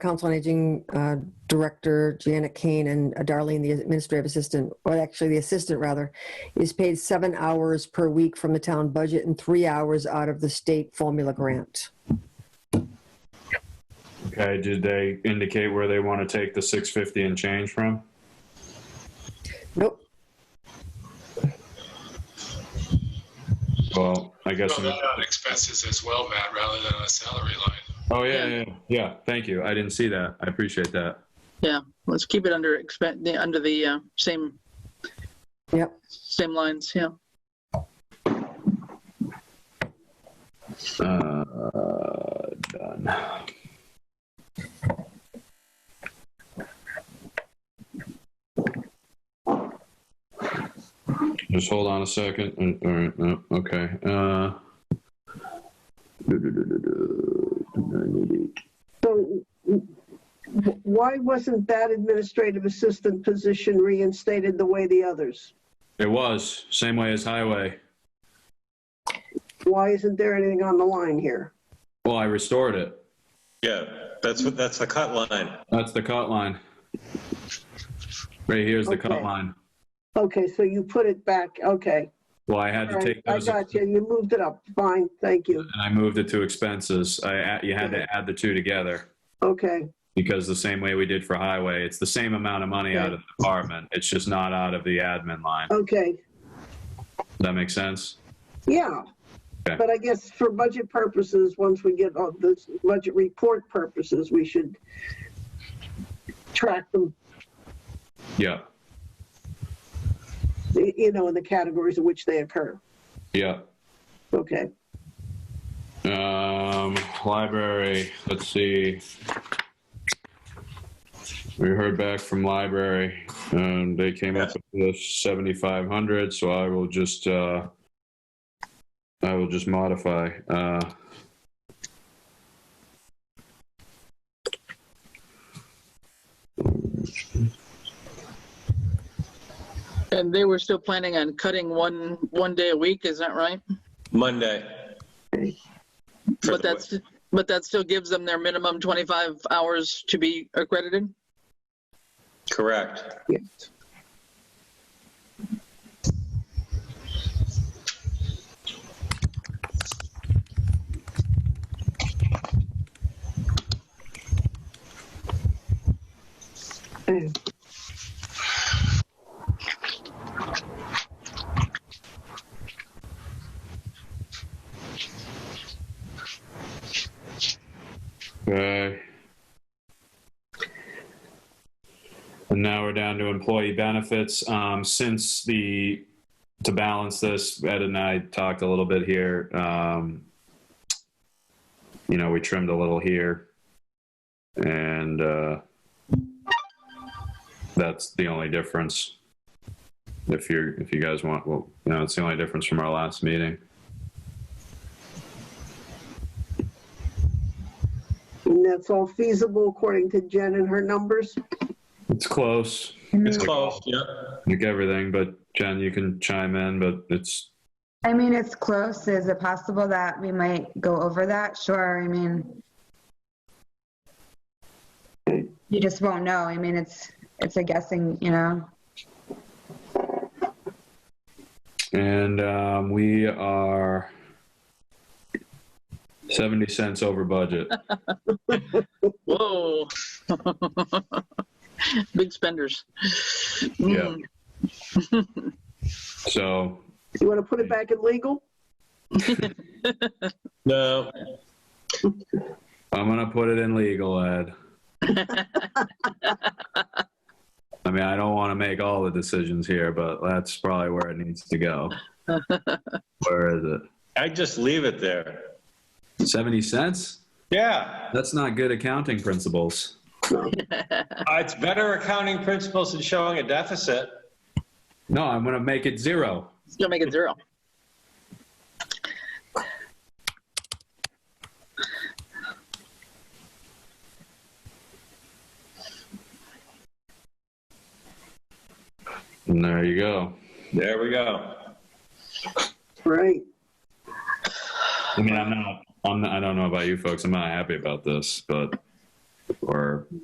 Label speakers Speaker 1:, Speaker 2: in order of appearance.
Speaker 1: Council on Aging uh, Director Janet Kane and uh, Darlene, the administrative assistant, or actually the assistant rather, is paid seven hours per week from the town budget and three hours out of the state formula grant.
Speaker 2: Okay, uh, did they indicate where they want to take the six fifty and change from?
Speaker 1: Nope,
Speaker 2: Well, I guess.
Speaker 3: Well, that on expenses as well, Matt, rather than on a salary line.
Speaker 2: Oh, yeah, yeah, yeah, yeah. Thank you. I didn't see that. I appreciate that.
Speaker 4: Yeah, let's keep it under expen- the under the uh, same
Speaker 1: yep.
Speaker 4: same lines. Yeah.
Speaker 2: Uh, done. Just hold on a second. Uh, All right, no, okay. Uh,
Speaker 5: So w- w- why wasn't that administrative assistant position reinstated the way the others?
Speaker 2: It was same way as highway.
Speaker 5: Why isn't there anything on the line here?
Speaker 2: Well, I restored it.
Speaker 6: Yeah, that's what, that's the cut line.
Speaker 2: That's the cut line. Right here's the cut
Speaker 5: Okay.
Speaker 2: line.
Speaker 5: Okay, so you put it back, okay.
Speaker 2: Well, I had
Speaker 5: All
Speaker 2: to
Speaker 5: right,
Speaker 2: take
Speaker 5: I
Speaker 2: those and
Speaker 5: got you, you moved it up, fine, thank you,
Speaker 2: I moved it to expenses. I, add- you had to add the two together.
Speaker 5: okay.
Speaker 2: Because the same way we did for highway, it's the same amount of money out of the department. It's just not out of the admin line. Does
Speaker 5: Okay,
Speaker 2: that make sense?
Speaker 5: yeah.
Speaker 2: Okay.
Speaker 5: But I guess for budget purposes, once we get all the budget report purposes, we should track them,
Speaker 2: Yeah,
Speaker 5: y- you know, in the categories in which they occur.
Speaker 2: yeah.
Speaker 5: Okay,
Speaker 2: Um, library, let's see. We heard back from library, um, they came up with seventy-five hundred, so I will just, uh, I will just modify, uh.
Speaker 4: And they were still planning on cutting one one day a week. Is that right?
Speaker 6: Monday. For
Speaker 4: But
Speaker 6: the-
Speaker 4: that's but that still gives them their minimum 25 hours to be accredited.
Speaker 6: Correct.
Speaker 5: Eh,
Speaker 2: Okay. And now we're down to employee benefits. Um, since the, to balance this, Ed and I talked a little bit here. Um, you know, we trimmed a little here. And uh, that's the only difference. If you're, if you guys want, well, you know, it's the only difference from our last meeting.
Speaker 5: And that's all feasible according to Jen and her numbers?
Speaker 2: It's close.
Speaker 6: It's
Speaker 2: Like-
Speaker 6: close, yep.
Speaker 2: like everything, but Jen, you can chime in, but it's
Speaker 7: I mean, it's close. Is it possible that we might go over that? Sure. I mean, you just won't know. I mean, it's it's a guessing, you know.
Speaker 2: and um, we are 70 cents over budget.
Speaker 4: Whoa. Big spenders.
Speaker 2: Yeah.
Speaker 4: Mm.
Speaker 2: So,
Speaker 5: You want to put it back in legal?
Speaker 6: No,
Speaker 2: I'm going to put it in legal, Ed. I mean, I don't want to make all the decisions here, but that's probably where it needs to go. where is it?
Speaker 6: I just leave it there.
Speaker 2: 70 cents?
Speaker 6: Yeah,
Speaker 2: That's not good accounting principles.
Speaker 6: Uh, it's better accounting principles than showing a deficit.
Speaker 2: No, I'm going to make it zero.
Speaker 4: It's gonna make it zero.
Speaker 2: And there you go.
Speaker 6: There we go.
Speaker 5: Right.
Speaker 2: I mean, I'm not, I'm not, I don't know about you folks. I'm not happy about this, but or